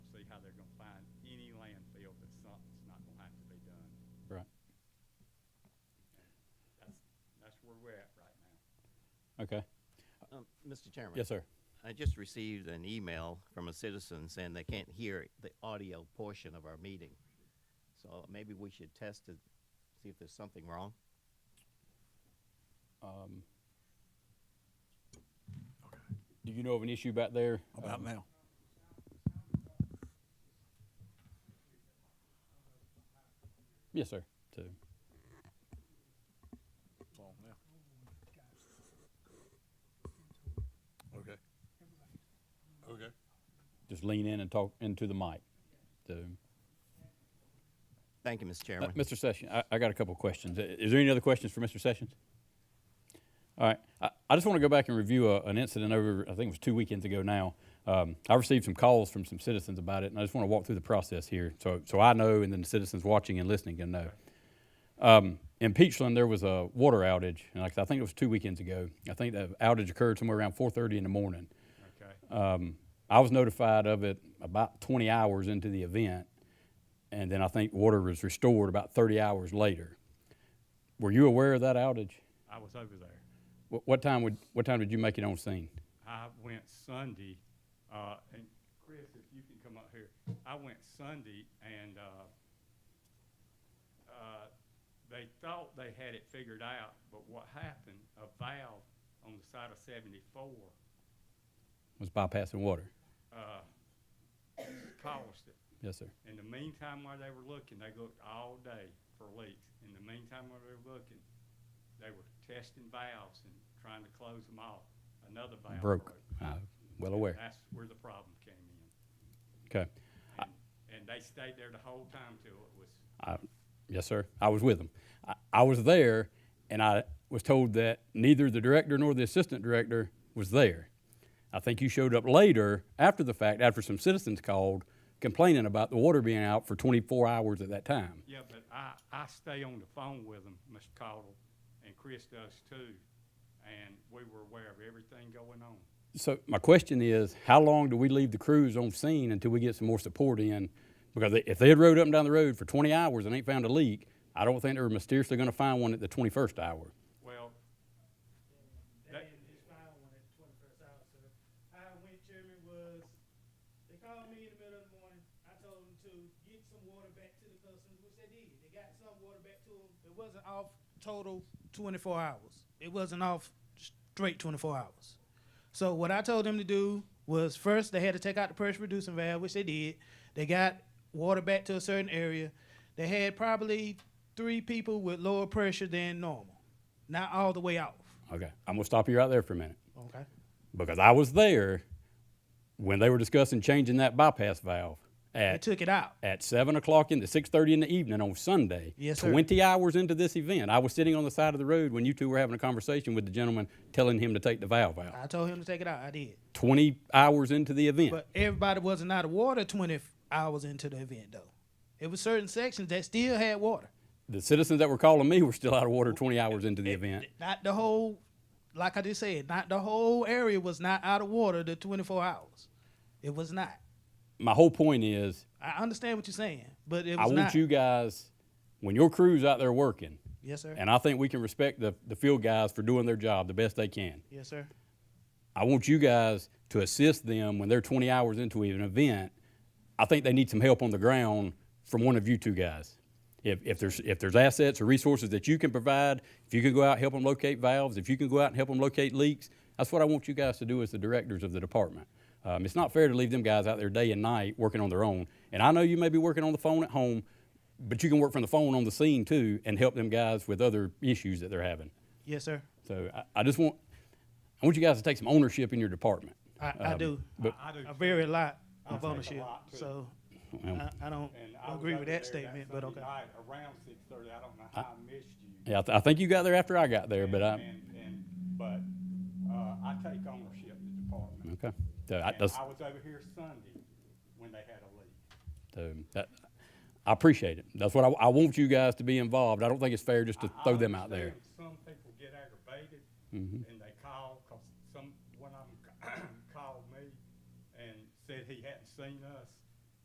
Okay. Um, Mr. Chairman. Yes, sir. I just received an email from a citizen saying they can't hear the audio portion of our meeting. So maybe we should test it, see if there's something wrong. Um, Do you know of an issue back there? Um, How about now? Yes, sir. Two. Okay. Okay. Just lean in and talk into the mic. Two. Thank you, Mr. Uh, Chairman. Mr. Sessions, I, I got a couple of questions. I- Is there any other questions for Mr. Sessions? All right. I, I just want to go back and review a, an incident over, I think it was two weekends ago now. Um, I received some calls from some citizens about it, and I just want to walk through the process here so, so I know, and then the citizens watching and listening can know. Um, in Peachland, there was a water outage, and like I said, I think it was two weekends ago. I think that outage occurred somewhere around 4:30 in the morning. Okay. Um, I was notified of it about 20 hours into the event, and then I think water was restored about 30 hours later. Were you aware of that outage? I was over there. What, what time would what time did you make it on scene? I went Sunday, uh, and Chris, if you can come up here, I went Sunday and, uh, uh, they thought they had it figured out, but what happened, a valve on the side of seventy-four, Was bypassing water? uh, caused it. Yes, sir. In the meantime, while they were looking, they looked all day for leaks. In the meantime, while they were looking, they were testing valves and trying to close them off. Another valve Broke. broke. Uh, well aware. That's where the problem came in. Okay. And, and they stayed there the whole time till it was, I, yes, sir. I was with them. I, I was there, and I was told that neither the director nor the assistant director was there. I think you showed up later after the fact, after some citizens called complaining about the water being out for 24 hours at that time. yeah, but I, I stay on the phone with them, Mr. Caudle, and Chris does too. And we were aware of everything going on. So my question is, how long do we leave the crews on scene until we get some more support in? Because if they had rode up and down the road for 20 hours and ain't found a leak, I don't think they were mysteriously going to find one at the 21st hour. Well, They didn't just find one at twenty-first hour, so how I went, Chairman, was, they called me in the middle of the morning, I told them to get some water back to the customers, which they did, they got some water back to them, it wasn't off total twenty-four hours, it wasn't off straight twenty-four hours. So what I told them to do was first they had to take out the pressure reducing valve, which they did. They got water back to a certain area. They had probably three people with lower pressure than normal, not all the way off. Okay, I'm going to stop you right there for a minute. Okay. because I was there when they were discussing changing that bypass valve They at, took it out. at seven o'clock in the six thirty in the evening on Sunday. Yes, sir. Twenty hours into this event, I was sitting on the side of the road when you two were having a conversation with the gentleman, telling him to take the valve out. I told him to take it out. I did. Twenty hours into the event. But everybody wasn't out of water 20 hours into the event, though. It was certain sections that still had water. the citizens that were calling me were still out of water twenty hours into the event. Not the whole, like I just said, not the whole area was not out of water the 24 hours. It was not. My whole point is, I understand what you're saying, but it was I want not. you guys, when your crew's out there working, Yes, sir. and I think we can respect the, the field guys for doing their job the best they can. Yes, sir. I want you guys to assist them when they're 20 hours into an event. I think they need some help on the ground from one of you two guys. If, if there's if there's assets or resources that you can provide, if you can go out and help them locate valves, if you can go out and help them locate leaks, that's what I want you guys to do as the directors of the department. Um, it's not fair to leave them guys out there day and night working on their own. And I know you may be working on the phone at home, but you can work from the phone on the scene too and help them guys with other issues that they're having. Yes, sir. So I, I just want I want you guys to take some ownership in your department. I, I do. Um, but- I do. I vary a lot I of take a ownership. lot, too. So Well, I, I don't And I was agree over with there that statement, but Sunday okay. night Around six thirty, I don't know how I missed you. Yeah, I, th- I think you got there after I got there, but And- I And, and, but, uh, I take ownership of the department. okay. So I, And that's, I was over here Sunday when they had a leak. so that, I appreciate it. That's what I, I want you guys to be involved. I don't think it's fair just to I- I throw them out there. Mm-hmm. understand Some people get aggravated and they call, cause some, one of them called me and said he hadn't seen us.